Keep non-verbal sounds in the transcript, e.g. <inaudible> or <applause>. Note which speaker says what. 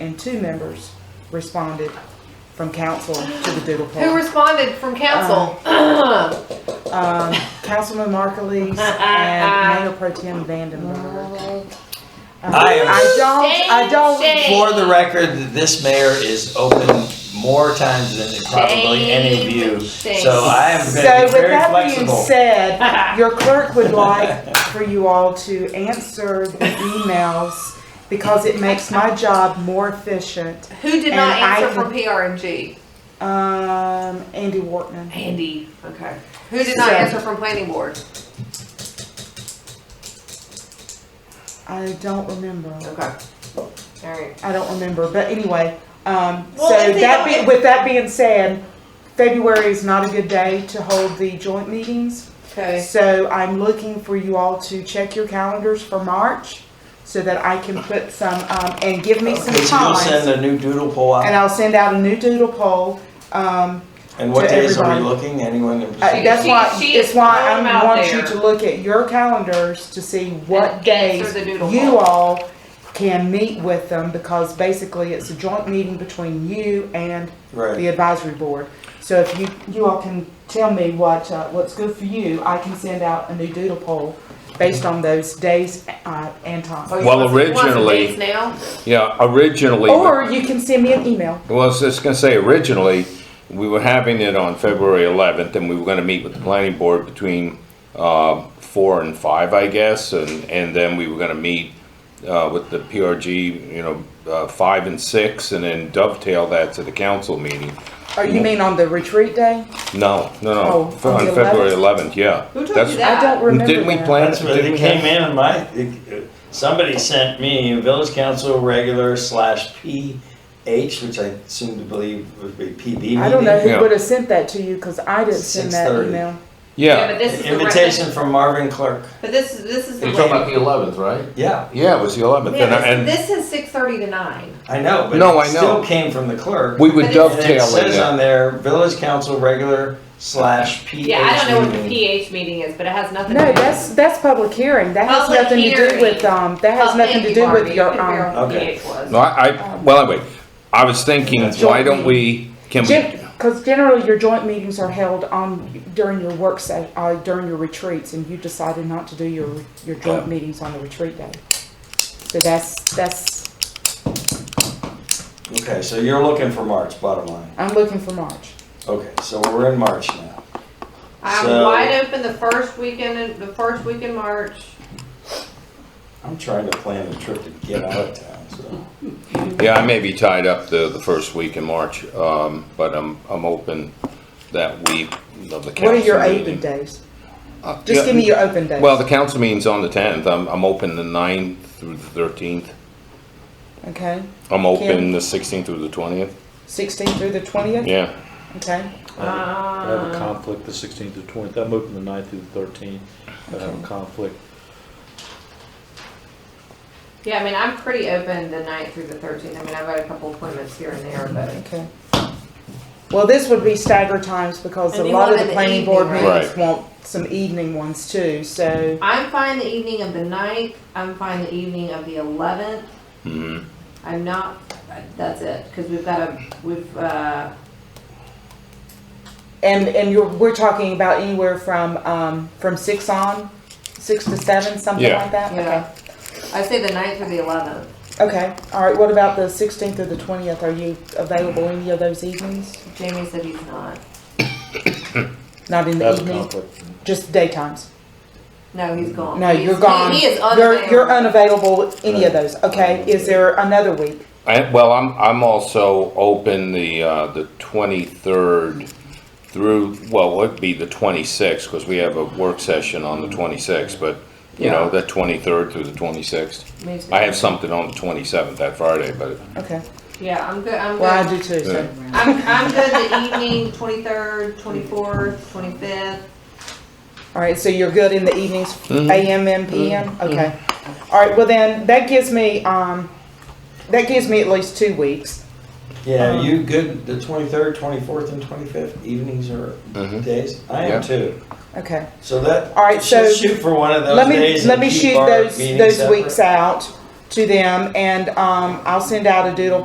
Speaker 1: and two members responded from council to the doodle
Speaker 2: Who
Speaker 1: poll.
Speaker 2: responded from council?
Speaker 1: Um, Councilman Markleese and Mayor Pro Tem Vandenberg. Um,
Speaker 3: I am-
Speaker 1: I don't, I
Speaker 2: Shame,
Speaker 1: don't,
Speaker 2: shame.
Speaker 3: For the record, this mayor is open more times than probably any of you,
Speaker 2: Shame,
Speaker 3: so I am
Speaker 1: so
Speaker 3: gonna be
Speaker 1: with
Speaker 3: very
Speaker 1: that being
Speaker 3: flexible.
Speaker 1: said, your clerk would like for you all to answer the emails because it makes my job more efficient.
Speaker 2: <clears throat> Who did not
Speaker 1: And I
Speaker 2: answer
Speaker 1: can-
Speaker 2: from PRNG?
Speaker 1: Um, Andy Wortman.
Speaker 2: Andy. Okay. Who did not
Speaker 1: So-
Speaker 2: answer from planning board?
Speaker 1: I don't remember.
Speaker 2: Okay. All right.
Speaker 1: I don't remember, but anyway, um, so
Speaker 2: Well, if they
Speaker 1: that be,
Speaker 2: don't-
Speaker 1: with that being said, February is not a good day to hold the joint meetings.
Speaker 2: Okay.
Speaker 1: So I'm looking for you all to check your calendars for March so that I can put some, um, and give me some
Speaker 3: Because Uh, you'll send
Speaker 1: time.
Speaker 3: a new doodle poll
Speaker 1: And
Speaker 3: out,
Speaker 1: I'll send out a new doodle poll. Um,
Speaker 3: and what
Speaker 1: to
Speaker 3: days are we
Speaker 1: everybody.
Speaker 3: looking, anyone? in
Speaker 1: uh,
Speaker 3: particular?
Speaker 1: that's why,
Speaker 2: she is
Speaker 1: it's why
Speaker 2: throwing
Speaker 1: I
Speaker 2: them out
Speaker 1: want you
Speaker 2: there.
Speaker 1: to look at your calendars to see what
Speaker 2: And answer
Speaker 1: days
Speaker 2: the doodle
Speaker 1: you
Speaker 2: poll.
Speaker 1: all can meet with them because basically it's a joint meeting between you and the
Speaker 3: Right,
Speaker 1: advisory board. So if you, you all can tell me what, uh, what's good for you, I can send out a new doodle poll based on those days, uh, and
Speaker 2: Oh,
Speaker 1: times.
Speaker 2: you
Speaker 4: Well,
Speaker 2: want some- you want some
Speaker 4: originally-
Speaker 2: dates now?
Speaker 4: Yeah, originally,
Speaker 1: Or you can send me an email.
Speaker 4: well, I was just gonna say, originally, we were having it on February 11th, and we were gonna meet with the planning board between uh, four and five, I guess, and, and then we were gonna meet uh, with the PRG, you know, uh, five and six, and then dovetail that to the council meeting.
Speaker 1: Or you mean on the retreat day?
Speaker 4: No,
Speaker 1: Oh,
Speaker 4: no, no,
Speaker 1: on
Speaker 4: on
Speaker 1: the
Speaker 4: February 11th, yeah.
Speaker 2: Who told you
Speaker 4: That's-
Speaker 2: that?
Speaker 1: I don't remember
Speaker 4: Didn't we
Speaker 1: that.
Speaker 4: plan?
Speaker 3: that's where
Speaker 4: didn't
Speaker 3: they
Speaker 4: we
Speaker 3: came
Speaker 4: have-
Speaker 3: in, and my, it- uh, somebody sent me a village council regular slash PH, which I seem to believe would be PB meeting.
Speaker 1: I don't know who
Speaker 4: Yeah.
Speaker 1: would have sent that to you, cause I didn't send that
Speaker 3: 6:30.
Speaker 1: email.
Speaker 2: Yeah, but
Speaker 4: Yeah,
Speaker 2: this is the rec-
Speaker 3: Invitation from Marvin Clark,
Speaker 2: But this is this is the
Speaker 4: You're talking
Speaker 2: way-
Speaker 4: about the 11th, right?
Speaker 3: yeah,
Speaker 4: Yeah, it was the 11th, and, I-
Speaker 2: Man,
Speaker 4: and
Speaker 2: this, this is six thirty to nine.
Speaker 3: I know, but
Speaker 4: No,
Speaker 3: it
Speaker 4: I know.
Speaker 3: still came from the clerk.
Speaker 4: we would
Speaker 2: But it's-
Speaker 4: dovetail
Speaker 3: And
Speaker 4: in
Speaker 3: it says
Speaker 4: it.
Speaker 3: on there, village council regular slash E. PH.
Speaker 2: Yeah, I don't know what the
Speaker 3: meeting.
Speaker 1: E
Speaker 2: PH meeting is, but it has nothing. to
Speaker 1: No,
Speaker 2: do-
Speaker 1: that's, that's public hearing. That has
Speaker 2: Public
Speaker 1: nothing to do
Speaker 2: hearing.
Speaker 1: with, um, that has
Speaker 2: Oh,
Speaker 1: nothing
Speaker 2: thank
Speaker 1: to
Speaker 2: you,
Speaker 1: do
Speaker 2: Barbie.
Speaker 1: with
Speaker 2: You
Speaker 1: your,
Speaker 2: couldn't figure
Speaker 1: um,
Speaker 2: out what
Speaker 3: Okay.
Speaker 2: PH was.
Speaker 4: No, I, I, well, anyway, I was thinking, why don't we, can
Speaker 1: Gen-
Speaker 4: we,
Speaker 1: Cause generally your joint meetings are held on, during your work se- uh, during your retreats and you decided not to do your, your joint meetings on the retreat day. So that's, that's,
Speaker 3: Okay, so you're looking for March, bottom line.
Speaker 1: I'm looking for March.
Speaker 3: Okay, so we're in March now.
Speaker 2: I'm
Speaker 3: So-
Speaker 2: wide open the first weekend, in- the first week in March.
Speaker 3: I'm trying to plan a trip to get out of town, so.
Speaker 4: yeah, I may be tied up the, the first week in March, um, but I'm, I'm open that week of the council meeting.
Speaker 1: What are your open days?
Speaker 4: Uh,
Speaker 1: Just
Speaker 4: yeah,
Speaker 1: give me your open days.
Speaker 4: Well, the council meeting's on the tenth, I'm, I'm open the 9th through the thirteenth,
Speaker 1: Okay,
Speaker 4: I'm open the sixteenth through the twentieth,
Speaker 1: sixteenth through the twentieth,
Speaker 4: yeah.
Speaker 1: okay?
Speaker 5: I have a- I have a
Speaker 2: Uh,
Speaker 5: conflict the 16th to 20th. I'm open the 9th through the 13th. I have
Speaker 1: Okay.
Speaker 5: a conflict.
Speaker 2: Yeah, I mean, I'm pretty open the ninth through the thirteenth. I mean, I've got a couple appointments here and there, but.
Speaker 1: Okay. Well, this would be staggered times because a
Speaker 2: And you
Speaker 1: lot
Speaker 2: want
Speaker 1: of
Speaker 2: in
Speaker 1: the
Speaker 2: the
Speaker 1: planning
Speaker 2: evening,
Speaker 1: board
Speaker 2: right?
Speaker 1: meetings
Speaker 4: Right.
Speaker 1: want some evening ones too, so.
Speaker 2: I'm fine the evening of the ninth, I'm fine the evening of the eleventh,
Speaker 4: Mhm.
Speaker 2: I'm not, that's it, cause we've got a, we've, uh,
Speaker 1: And, and you're, we're talking about anywhere from, um, from six on, six to seven, something
Speaker 4: Yeah.
Speaker 1: like that?
Speaker 2: yeah. I say the ninth or the eleventh,
Speaker 1: Okay, okay, all right, what about the sixteenth or the twentieth, are you available any of those evenings?
Speaker 2: Jamie said he's not,
Speaker 1: Not in
Speaker 5: I
Speaker 1: the
Speaker 5: have a
Speaker 1: evening,
Speaker 5: conflict.
Speaker 1: just daytimes?
Speaker 2: no, he's gone.
Speaker 1: No,
Speaker 2: He's-
Speaker 1: you're gone.
Speaker 2: He he is
Speaker 1: You're, you're
Speaker 2: unavailable.
Speaker 1: unavailable any of those, okay, is there another week?
Speaker 4: I, well, I'm, I'm also open the, uh, the twenty-third through, well, it'd be the twenty-sixth, because we have a work session on the twenty-sixth, but, you know, the twenty-third through the twenty-sixth.
Speaker 2: Me too.
Speaker 4: I have something on the twenty-seventh, that Friday, but,
Speaker 1: Okay,
Speaker 2: Yeah, I'm good, I'm
Speaker 1: well, I
Speaker 2: good,
Speaker 1: do too, so.
Speaker 2: I'm, I'm good the evening, twenty-third, twenty-fourth, twenty-fifth,
Speaker 1: All right, so you're good in the evenings, AM and PM? Okay. All right, well then, that gives me, um, that gives me at least two weeks.
Speaker 3: Yeah,
Speaker 1: Um,
Speaker 3: you good, the twenty-third, twenty-fourth, and twenty-fifth, evenings or
Speaker 4: Mhm.
Speaker 3: days? I
Speaker 4: Yeah.
Speaker 3: am too.
Speaker 1: Okay.
Speaker 3: So that.
Speaker 1: All right, so
Speaker 3: should Shoot for one of those
Speaker 1: Let me,
Speaker 3: days. and
Speaker 1: let me
Speaker 3: keep
Speaker 1: shoot
Speaker 3: our
Speaker 1: those,
Speaker 3: meetings
Speaker 1: those
Speaker 3: separate.
Speaker 1: weeks out to them and, um, I'll send out a doodle